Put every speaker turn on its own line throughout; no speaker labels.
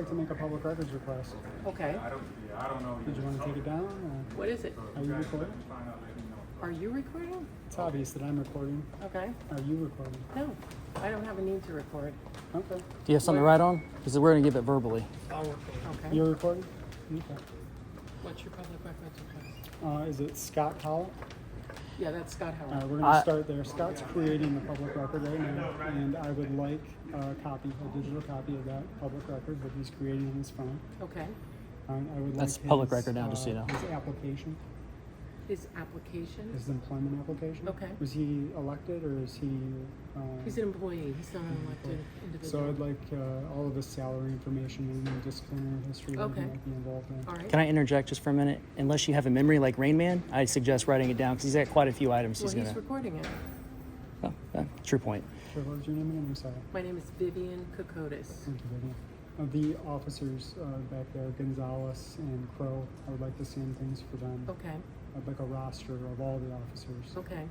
like to make a public records request.
Okay.
I don't, yeah, I don't know.
Did you want to take it down? Or?
What is it?
Are you recording?
Find out, let me know.
Are you recording?
It's obvious that I'm recording.
Okay.
Are you recording?
No, I don't have a need to record.
Okay.
Do you have something to write on? Because we're going to give it verbally.
Okay.
You're recording? Okay.
What's your public records request?
Uh, is it Scott Howell?
Yeah, that's Scott
Uh,
Howard.
we're going to
I-
start there. Scott's creating the public record right now, and I would like a copy, a digital copy of that public record that he's creating on his phone.
Okay.
And I would
That's
like
public
his,
record now, just so you
uh,
know.
His application,
His application?
his employment application.
Okay.
Was he elected or is he? Uh,
He's an employee. He's not an elected
So I'd
individual.
like uh, all of his salary information and the disciplinary history that he
Okay.
might be involved in.
All right.
Can I interject just for a minute? Unless you have a memory like Rain Man, I suggest writing it down because he's got quite a few items
Well,
he's
he's
going to.
recording it.
Oh, yeah, true point.
Sure, what was your name again? I'm sorry.
My name is Vivian Kokotis.
Thank you, Vivian. Uh, the officers uh, back there, Gonzalez and Crow, I would like the same things for them.
Okay,
I'd like a roster of all the officers
okay,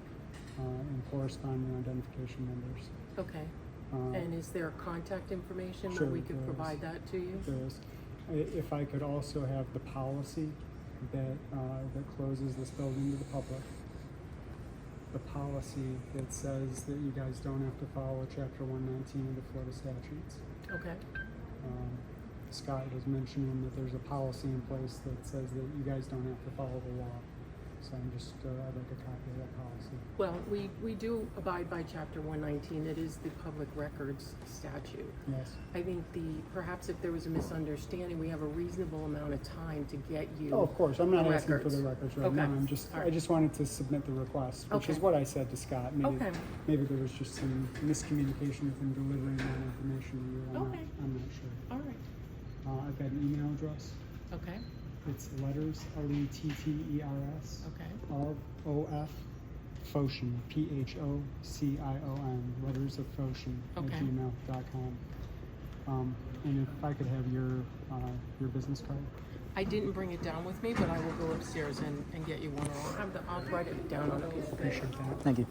uh, and corresponding identification numbers.
okay.
Uh,
And is there contact information
Sure,
that we could
there is.
provide that to you?
there is. I- If I could also have the policy that, uh, that closes this building to the public. The policy that says that you guys don't have to follow chapter one nineteen of the Florida statutes.
Okay,
Um, Scott was mentioning that there's a policy in place that says that you guys don't have to follow the law. So I'm just, uh, I'd like a copy of that policy.
well, we, we do abide by chapter one nineteen. It is the public records statute.
Yes,
I think the, perhaps if there was a misunderstanding, we have a reasonable amount of time to get you.
oh, of course, I'm not
The
asking for the records
records.
right now,
Okay.
I'm just,
All
I
right.
just wanted to submit the request, which is
Okay.
what I said to Scott. Maybe-
Okay.
Maybe there was just some miscommunication with him delivering that information to you, I'm not,
Okay.
I'm not sure.
All right,
Uh, I've got an email address,
okay,
it's letters, L E T T E R S.
okay,
of OF Phocion, P H O C I O N, letters of Phocion at
Okay.
gmail.com. Um, and if I could have your uh, your business card,
I didn't bring it down with me, but I will go upstairs and, and get you one. I'll have the, I'll write it down on a piece of paper.
appreciate that.
Thank you.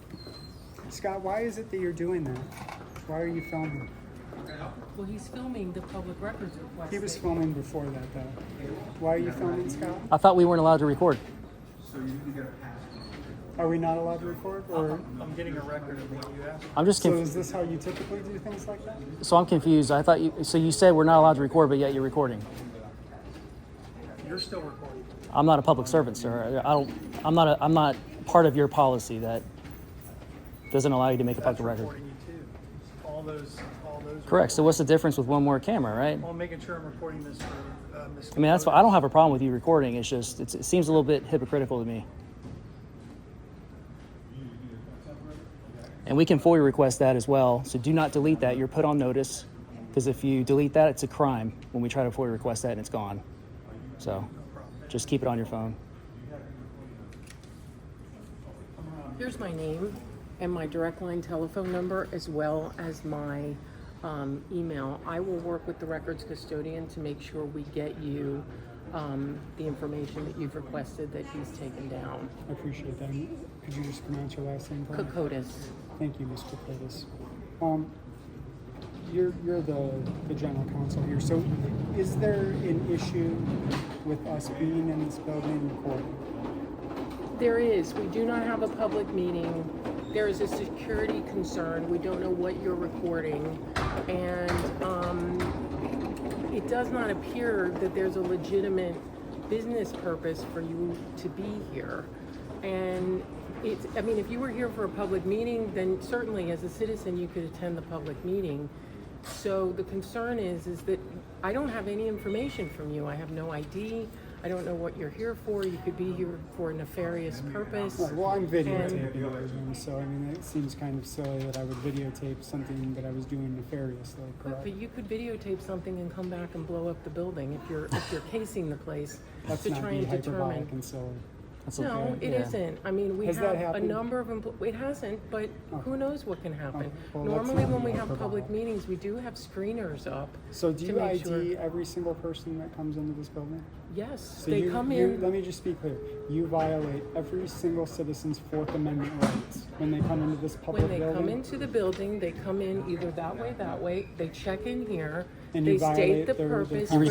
Scott, why is it that you're doing that? Why are you filming?
Well, he's filming the public records request.
He was
that-
filming before that, though. Why are you filming, Scott?
I thought we weren't allowed to record.
Are we not allowed to record? Or
I'm getting a record of what you asked.
I'm just
so
confused.
is this how you typically do things like that?
So, I'm confused. I thought you. So you said we're not allowed to record, but yet you're recording.
You're still recording.
I'm not a public servant, sir. I don't. I'm not. A, I'm not part of your policy that doesn't allow you to make a
That's
public record.
recording you too. All those, all those.
Correct. So what's the difference with one more camera, right?
Well, I'm making sure I'm recording this for, uh, Ms.
I mean, that's. why I don't have a problem with you recording. It's just. It's, it seems a little bit hypocritical to me. And we can FOIA request that as well. So do not delete that. You're put on notice because if you delete that, it's a crime when we try to FOIA request that and it's gone. So just keep it on your phone.
Here's my name and my direct line telephone number as well as my um, email. I will work with the records custodian to make sure we get you um, the information that you've requested that he's taken down.
I appreciate that. Could you just pronounce your last name for me?
Kokotis.
Thank you, Mr. Curtis. Um, you're, you're the, the general counsel here, so is there an issue with us being in this building recording?
There is. We do not have a public meeting. There is a security concern. We don't know what you're recording. And um, it does not appear that there's a legitimate business purpose for you to be here. And it's, I mean, if you were here for a public meeting, then certainly as a citizen, you could attend the public meeting. So the concern is, is that I don't have any information from you. I have no ID. I don't know what you're here for. You could be here for a nefarious purpose.
Right, Well, I'm videotaping everything, so I mean, it seems kind of silly that I would videotape something that I was doing nefariously,
But,
correct?
but you could videotape something and come back and blow up the building if you're, if you're casing the place
Let's
to
not
try
be
and
hyperbolic
determine.
and silly.
That's okay.
No, it
Yeah.
isn't. I mean, we
Has
have
that
a
happened?
number of, empl- it hasn't, but who knows what can happen.
Oh, well, let's
Normally,
not
when
be
we have public
hyperbolic.
meetings, we do have screeners up.
So do
to
you
make
ID
sure-
every single person that comes into this building?
Yes,
So
they
you-
come
you-
in,
Let me just be clear. You violate every single citizen's Fourth Amendment rights when they come into this public
when they
building.
come into the building, they come in either that way, that way, they check in here,
And
They
you violate
state the
their- their
purpose
con-